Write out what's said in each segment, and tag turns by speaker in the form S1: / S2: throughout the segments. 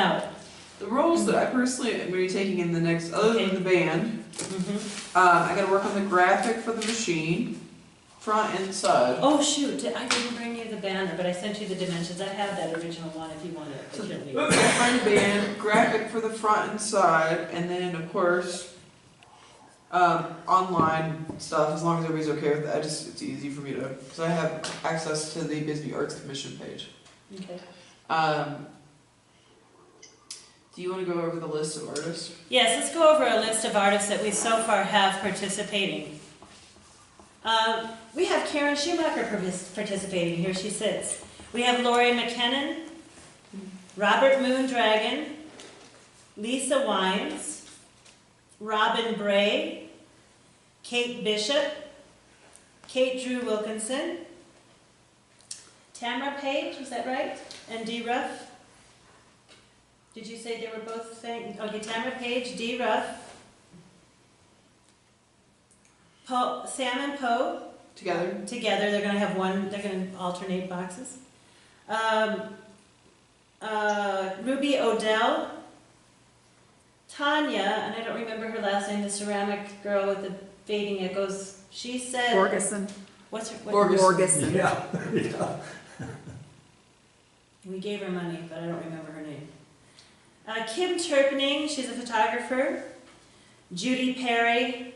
S1: out.
S2: The roles that I personally am going to be taking in the next, other than
S1: Okay.
S2: the band,
S1: Mm-hmm.
S2: uh, I got to work on the graphic for the machine, front and side.
S1: Oh, shoot, I didn't bring you the banner, but I sent you the dimensions, I have that original one if you want it.
S2: So-
S1: It shouldn't be-
S2: Front band, graphic for the front and side, and then of course, um, online stuff. As long as everybody's okay with that, I just it's easy for me to because I have access to the Bisbee Arts Commission page.
S1: Okay.
S2: Um, do you want to go over the list of artists?
S1: Yes, let's go over a list of artists that we so far have participating. Um, We have Karen Schumacher partic- participating, here she sits. We have Lori McKinnon, Robert Moondragon, Lisa Wines, Robin Bray, Kate Bishop, Kate Drew Wilkinson, Tamara Page, was that right? And Dee Ruff? Did you say they were both saying, okay, Tamara Page, D. Ruff, Poe, Sam and Poe,
S2: Together?
S1: together, they're gonna have one, they're gonna alternate boxes. Um, uh, Ruby Odell, Tanya, and I don't remember her last name, the ceramic girl with the fading, it goes, she said,
S3: Borgeson.
S1: what's her, what?
S2: Borges.
S3: Borgeson.
S4: Yeah, yeah.
S1: We gave her money, but I don't remember her name. Uh, Kim Turpning, she's a photographer. Judy Perry.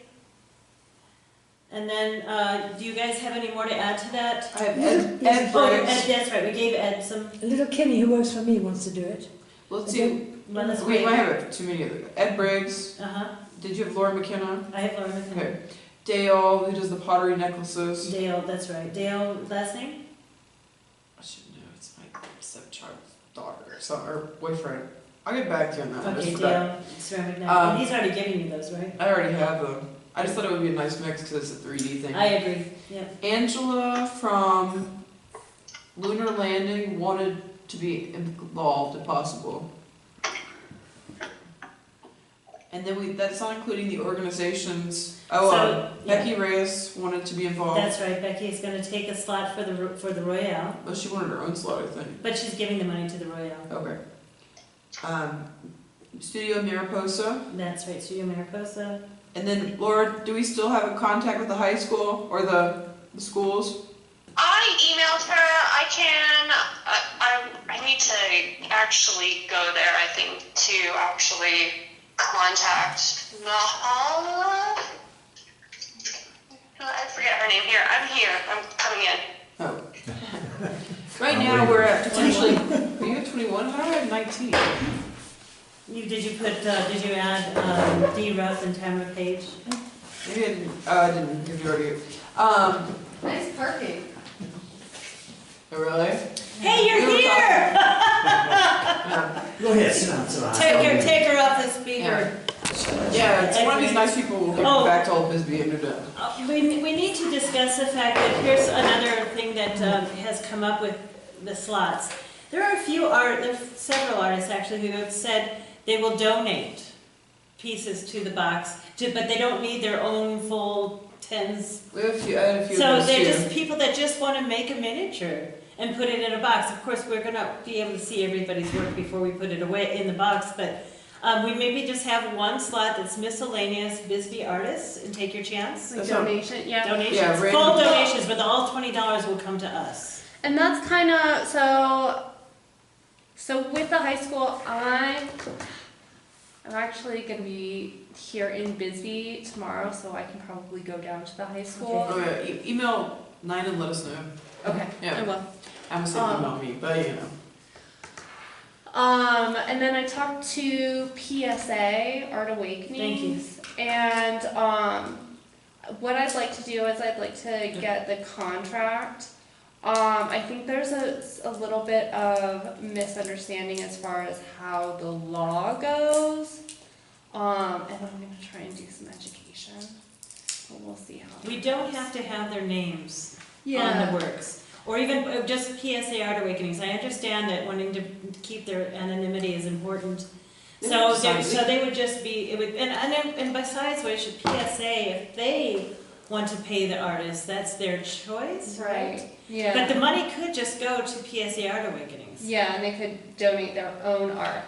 S1: And then, uh, do you guys have any more to add to that?
S2: I have Ed, Ed
S5: Yes.
S1: Oh,
S2: Briggs.
S1: Ed, that's right, we gave Ed some,
S5: Little Kimmy, who works for me, wants to do it.
S2: Let's see.
S1: well, that's
S2: We
S1: great.
S2: might have too many of them. Ed Briggs.
S1: Uh-huh,
S2: Did you have Laura McKenna?
S1: I have Laura McKinnon.
S2: Okay. Dale, who does the pottery necklaces.
S1: Dale, that's right, Dale, last name?
S2: I should know. It's my stepchild's daughter or son or boyfriend. I'll get back to you on that. I just
S1: Okay,
S2: forgot.
S1: Dale, ceramic
S2: Um,
S1: knife, he's already giving you those, right?
S2: I already have them. I just thought it would be a nice mix because it's a 3D thing.
S1: I agree, yeah.
S2: Angela from Lunar Landing wanted to be involved if possible. And then we, that's not including the organizations. Oh, um,
S1: So, yeah,
S2: Becky Reyes wanted to be involved,
S1: that's right, Becky is gonna take a slot for the, Ro- for the Royale.
S2: but she wanted her own slot, I think.
S1: But she's giving the money to the Royale.
S2: Okay. Um, Studio Mariposa.
S1: That's right, Studio Mariposa.
S2: And then, Laura, do we still have a contact with the high school or the, the schools?
S6: I emailed her. I can. I, I, I need to actually go there, I think, to actually contact Mahala. I forget her name here. I'm here. I'm coming in.
S2: Oh. Right
S4: I'm
S2: now,
S4: waiting.
S2: we're at potentially, are you at 21? How do I have 19?
S1: You, did you put, uh, did you add, um, D. Ruff and Tamara Page?
S2: Maybe I didn't, oh, I didn't, give you already. Um,
S7: Nice parking.
S2: oh, really?
S1: Hey, you're
S2: We were
S1: here!
S2: Yeah,
S4: Go ahead, sit down, sit down.
S1: Take her, take her off the speaker.
S2: Yeah, it's one of these nice people will give
S1: Oh.
S2: back to old Bisbee and they're done.
S1: Uh, We, we need to discuss the fact that here's another thing that, um, has come up with the slots. There are a few art, there are several artists actually who have said they will donate pieces to the box, to- but they don't need their own full tens
S2: We have a few, I had a few of
S1: So
S2: those
S1: they're
S2: too.
S1: just people that just want to make a miniature and put it in a box. Of course, we're gonna be able to see everybody's work before we put it away in the box, but um, we maybe just have one slot that's miscellaneous Bisbee artists and take your chance.
S2: That's not-
S7: donation, yeah.
S2: Yeah,
S1: Donations,
S2: random-
S1: full donations, but the all twenty dollars will come to us.
S7: And that's kind of so. So with the high school, I I'm actually gonna be here in Bisbee tomorrow, so I can probably go down to the high school.
S2: Oh, yeah, e- email nine and let us know.
S7: Okay, I
S2: Yeah,
S7: will.
S2: I'm assuming
S7: Um,
S2: email me, but you know.
S7: Um, and then I talked to PSA Art Awakenings, and um, what I'd like to do is I'd like to get the contract. Um, I think there's a, a little bit of misunderstanding as far as how the law goes, um, and I'm gonna try and do some education, but we'll see how.
S1: We don't have to have their names. on the
S7: Yeah.
S1: works. Or even uh, just PSA Art Awakenings, I understand that wanting to keep their anonymity is important.
S2: They
S1: So,
S2: have to
S1: they-
S2: sign
S1: so they would just be, it would, and, and, and besides which, PSA, if they want to pay the artist, that's their choice, right?
S7: Right. Yeah.
S1: But the money could just go to PSA Art Awakenings.
S7: yeah, and they could donate their own art.